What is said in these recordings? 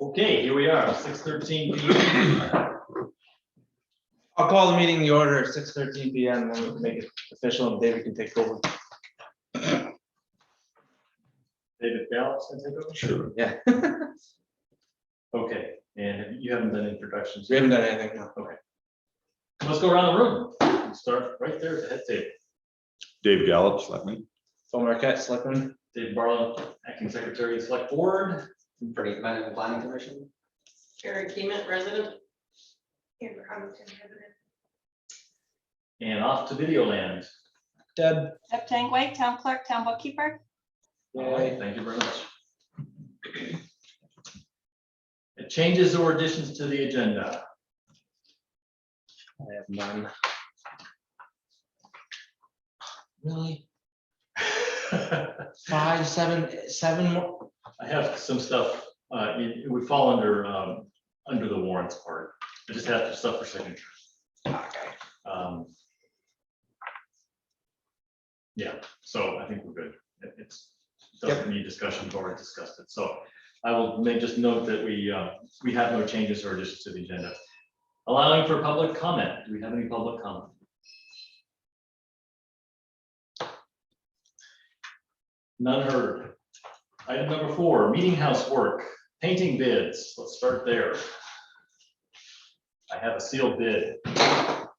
Okay, here we are, six thirteen P M. I'll call the meeting in the order at six thirteen P M, and then we can make it official, and David can take over. David Bell, is that it? Sure. Yeah, okay, and you haven't done introductions. we haven't done anything, no. Let's go around the room, We'll start right there at the head table, Dave Gallup, selectman. Phil Marquette, Selectman, Dave Barlow, acting secretary of the select board, Pretty much in the planning commission. Karen Keeman, resident. Amber Huntington, resident. and off to Videoland. Deb. Deb Tangway, town clerk, town bookkeeper. All right, Thank you very much. Uh, Changes or additions to the agenda? I have none. Really? I Five, seven, seven more? have some stuff, uh, it it would fall under, um, under the warrants part, I just have some stuff for signature. Um, Yeah, so I think we're good. It- It's, doesn't need discussion, we've already discussed it. So I will make just note that we, uh, we have no changes or additions to the agenda. Allowing for public comment. Do we have any public comment? None heard. Item number four, meeting house work, painting bids. Let's start there. I have a sealed bid.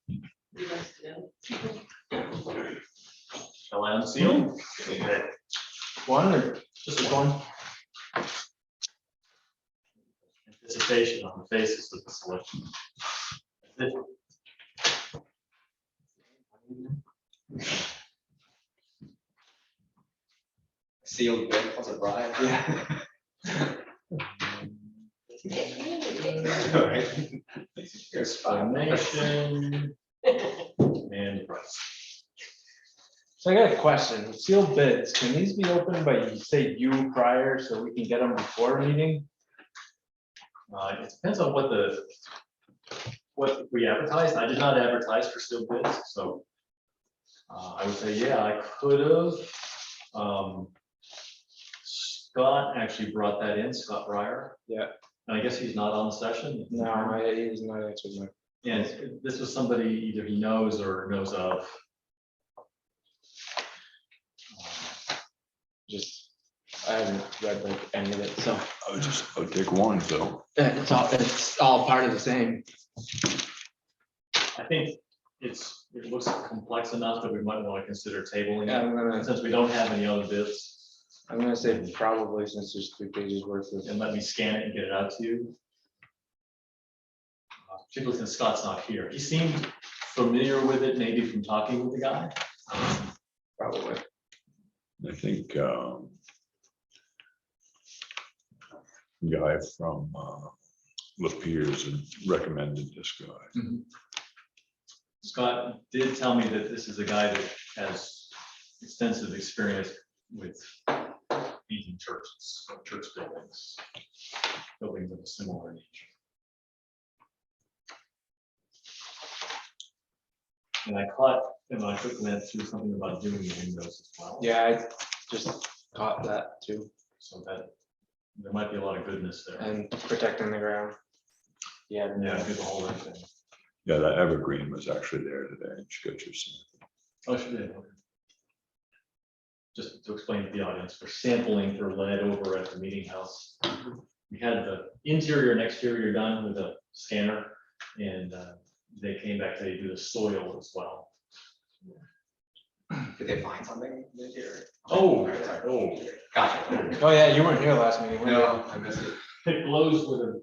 You guys know. Shall I unseal? Okay. One or Just just one one? anticipation on the basis of the selection. Sealed bid, was it Brian? Alright. Here's five. Donation and price. So I got a question, sealed bids, can these be opened by, say, you prior, so we can get them before a meeting? Uh, It depends on what the, what we advertised. I did not advertise for sealed bids, so uh, I would say, yeah, I could have. Scott actually brought that in, Scott Breyer. Yeah. And I guess he's not on the session. No, I, it's not actually my. And this was somebody either he knows or knows of. just, I haven't read like any of it, so. I would just, I would take one, so. It's all, it's all part of the same. I think it's, it looks complex enough that we might want to consider tabling it, I'm gonna, since we don't have any other bids. I'm gonna say probably since there's three pages worth of. And let me scan it and get it out to you. Uh, Particularly since Scott's not here. He seemed familiar with it, maybe from talking with the guy. Probably. I think, um, guy from, uh, Lepiers recommended this guy. Scott did tell me that this is a guy that has extensive experience with leading churches, or church buildings, buildings of a similar nature. And I caught, and I quickly went through something about doing the windows as well. Yeah, I just caught that too, So that, there might be a lot of goodness there. and protecting the ground. Yeah. Yeah, good the whole thing. Yeah, that evergreen was actually there today. She got your sample. Oh, she did. okay. Just to explain to the audience, we're sampling for lead over at the meeting house. We had the interior and exterior done with a scanner and uh, they came back, they do the soil as well. Did they find something this year? Oh, Alright, sorry. oh, Gotcha. Oh, yeah, you weren't here last meeting. were you? No, I missed it. it blows with a,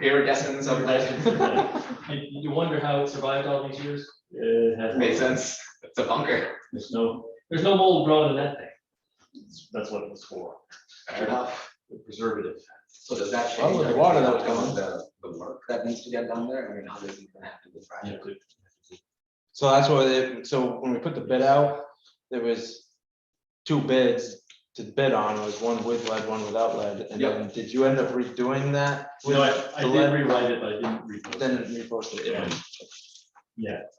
Iridescence of legend. you you wonder how it survived all these years? It has- Makes sense. It's a bunker. There's no, there's no mold growing in that thing. That's what it was for, Fair enough. the preservative. So does that Well, change? with the water that would everything? come in. The, the work that needs to get done there, I mean, how does it gonna have to be You Friday? have to- So that's what they, so when we put the bid out, there was two bids to bid on, It was one with lead, one without lead, and Yep. then did you end up redoing that? No, I, I The did lead- rewrite it, but I didn't repost it. Then reposted it. Yeah,